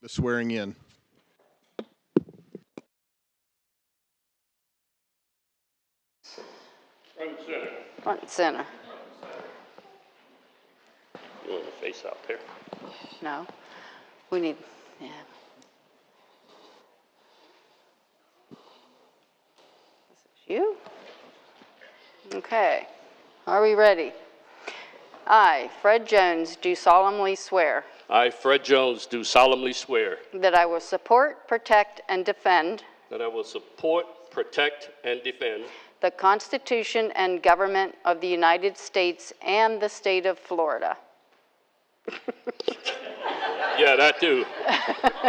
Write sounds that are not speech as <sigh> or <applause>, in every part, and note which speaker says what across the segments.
Speaker 1: the swearing in.
Speaker 2: Front and center.
Speaker 3: You want to face out there?
Speaker 2: No. We need, yeah. This is You? Okay. Are we ready? I, Fred Jones, do solemnly swear
Speaker 3: I, Fred Jones, do solemnly swear
Speaker 2: that I will support, protect, and defend
Speaker 3: that I will support, protect, and defend
Speaker 2: the Constitution and government of the United States and the state of Florida.
Speaker 3: Yeah, that
Speaker 2: <laughs>
Speaker 3: too.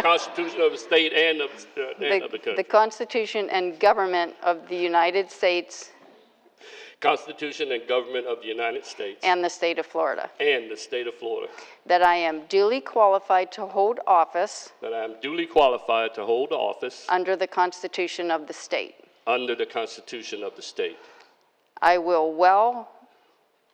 Speaker 3: Constitution of the state and of, uh, and of the
Speaker 2: The
Speaker 3: country.
Speaker 2: Constitution and government of the United States
Speaker 3: Constitution and government of the United States
Speaker 2: and the state of Florida.
Speaker 3: and the state of Florida.
Speaker 2: That I am duly qualified to hold office
Speaker 3: That I am duly qualified to hold office
Speaker 2: under the Constitution of the state.
Speaker 3: under the Constitution of the state.
Speaker 2: I will well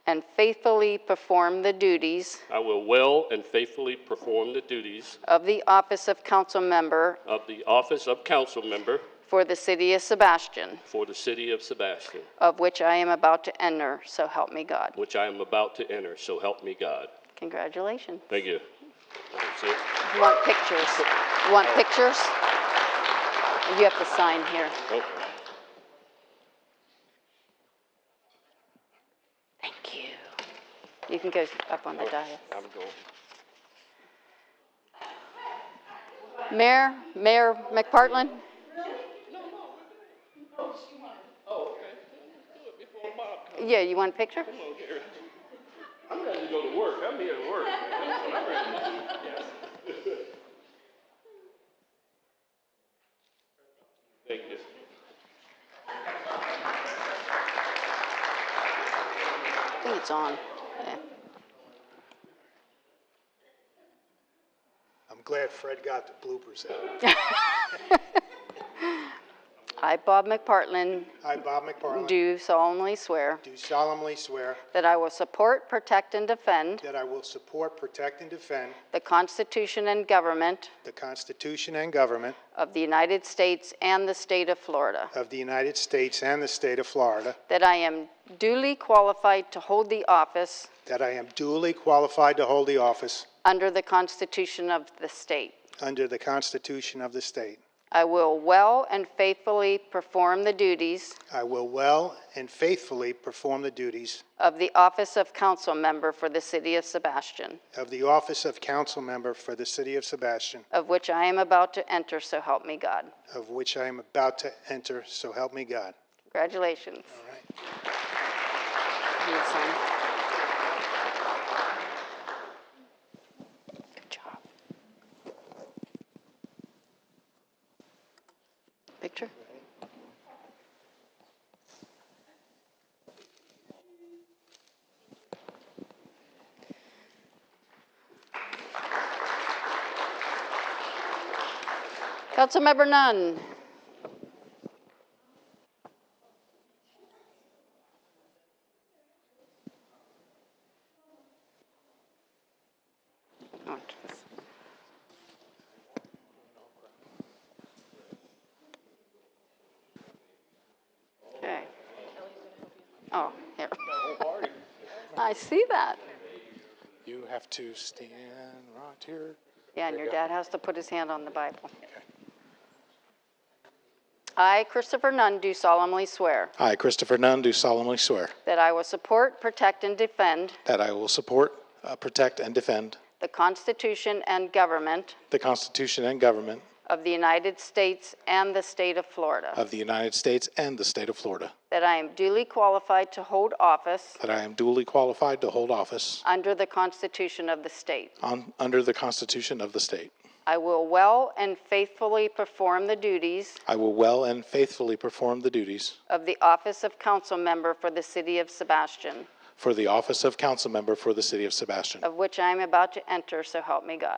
Speaker 2: and faithfully perform the duties
Speaker 3: I will well and faithfully perform the duties
Speaker 2: of the office of council member
Speaker 3: of the office of council member
Speaker 2: for the city of Sebastian,
Speaker 3: for the city of Sebastian,
Speaker 2: of which I am about to enter, so help me God.
Speaker 3: which I am about to enter, so help me God.
Speaker 2: Congratulations.
Speaker 3: Thank you. That's it.
Speaker 2: You Want pictures? You Want pictures? You have to sign here.
Speaker 3: Oh.
Speaker 2: Thank you. You can go up on the dais.
Speaker 3: I'm going.
Speaker 2: Mayor, Mayor McPartlin? Yeah, you want a picture?
Speaker 3: I'm ready to go to work. I'm here to work. Thank you.
Speaker 2: I think it's on. Yeah.
Speaker 4: I'm glad Fred got the bloopers out.
Speaker 2: I, Bob McPartlin,
Speaker 4: I, Bob McParland,
Speaker 2: do solemnly swear
Speaker 4: do solemnly swear
Speaker 2: that I will support, protect, and defend
Speaker 4: that I will support, protect, and defend
Speaker 2: the Constitution and government
Speaker 4: the Constitution and government
Speaker 2: of the United States and the state of Florida,
Speaker 4: of the United States and the state of Florida,
Speaker 2: that I am duly qualified to hold the office
Speaker 4: that I am duly qualified to hold the office
Speaker 2: under the Constitution of the state.
Speaker 4: under the Constitution of the state.
Speaker 2: I will well and faithfully perform the duties
Speaker 4: I will well and faithfully perform the duties
Speaker 2: of the office of council member for the city of Sebastian,
Speaker 4: of the office of council member for the city of Sebastian,
Speaker 2: of which I am about to enter, so help me God.
Speaker 4: of which I am about to enter, so help me God.
Speaker 2: Congratulations.
Speaker 4: All right.
Speaker 2: Need to sign? Good job. Picture? Councilmember Nunn. Oh, geez. Okay. Oh, here. I see that.
Speaker 4: You have to stand right here.
Speaker 2: Yeah, and your dad has to put his hand on the Bible. I, Christopher Nunn, do solemnly swear
Speaker 4: I, Christopher Nunn, do solemnly swear
Speaker 2: that I will support, protect, and defend
Speaker 4: that I will support, uh, protect, and defend
Speaker 2: the Constitution and government
Speaker 4: the Constitution and government
Speaker 2: of the United States and the state of Florida,
Speaker 4: of the United States and the state of Florida,
Speaker 2: that I am duly qualified to hold office
Speaker 4: that I am duly qualified to hold office
Speaker 2: under the Constitution of the state.
Speaker 4: on, under the Constitution of the state.
Speaker 2: I will well and faithfully perform the duties
Speaker 4: I will well and faithfully perform the duties
Speaker 2: of the office of council member for the city of Sebastian,
Speaker 4: for the office of council member for the city of Sebastian,
Speaker 2: of which I am about to enter, so help me God.